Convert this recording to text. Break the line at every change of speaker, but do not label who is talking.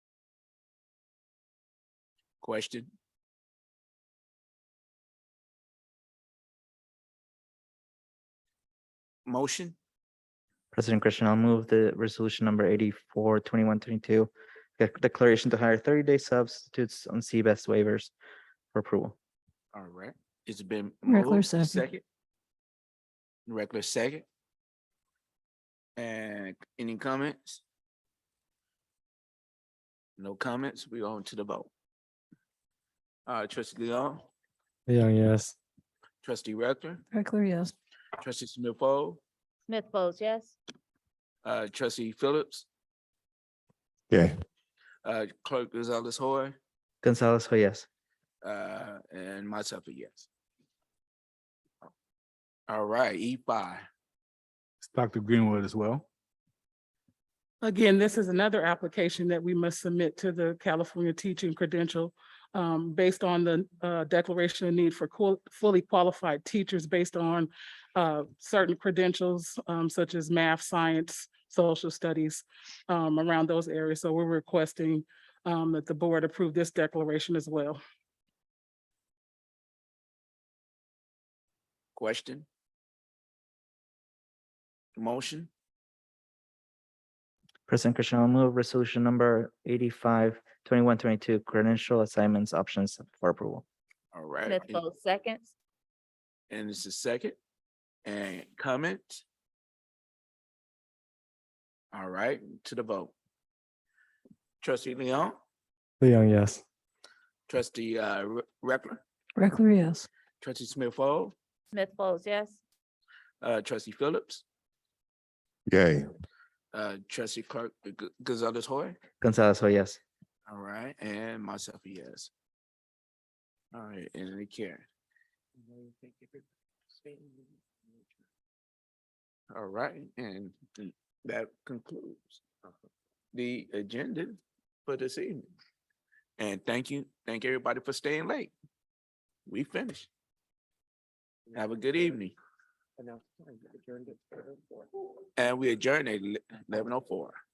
Question? Motion?
President Christian, I'll move the resolution number eighty-four twenty-one twenty-two. Declaration to hire thirty-day substitutes on CBES waivers for approval.
All right, it's been.
Regular
moved,
second.
Regular second. And any comments? No comments, we on to the vote. Uh, trustee Leon,
Leon, yes.
trustee Rector,
Reckler, yes.
trustee Smith Fall,
Smith Folds, yes.
uh, trustee Phillips,
Yeah.
uh, clerk Gonzalez Hoy,
Gonzalez, oh yes.
uh, and myself a yes. All right, E five.
It's Dr. Greenwood as well.
Again, this is another application that we must submit to the California Teaching Credential um, based on the uh, declaration of need for qual- fully qualified teachers based on uh, certain credentials um, such as math, science, social studies um, around those areas. So we're requesting um, that the board approve this declaration as well.
Question? Motion?
President Christian, I'll move resolution number eighty-five twenty-one twenty-two credential assignments options for approval.
All right.
Smith
and-
Folds, seconds.
And it's a second. And comment? All right, to the vote. Trustee Leon,
Leon, yes.
trustee uh Re- Reckler,
Reckler, yes.
trustee Smith Fall,
Smith Folds, yes.
uh trustee Phillips,
Yay.
uh trustee clerk G- Gonzalez Hoy.
Gonzalez, oh yes.
All right, and myself, a yes. All right, and they care. All right, and th- that concludes the agenda for this evening. And thank you, thank everybody for staying late. We finished. Have a good evening. And we adjourn at eleven oh four.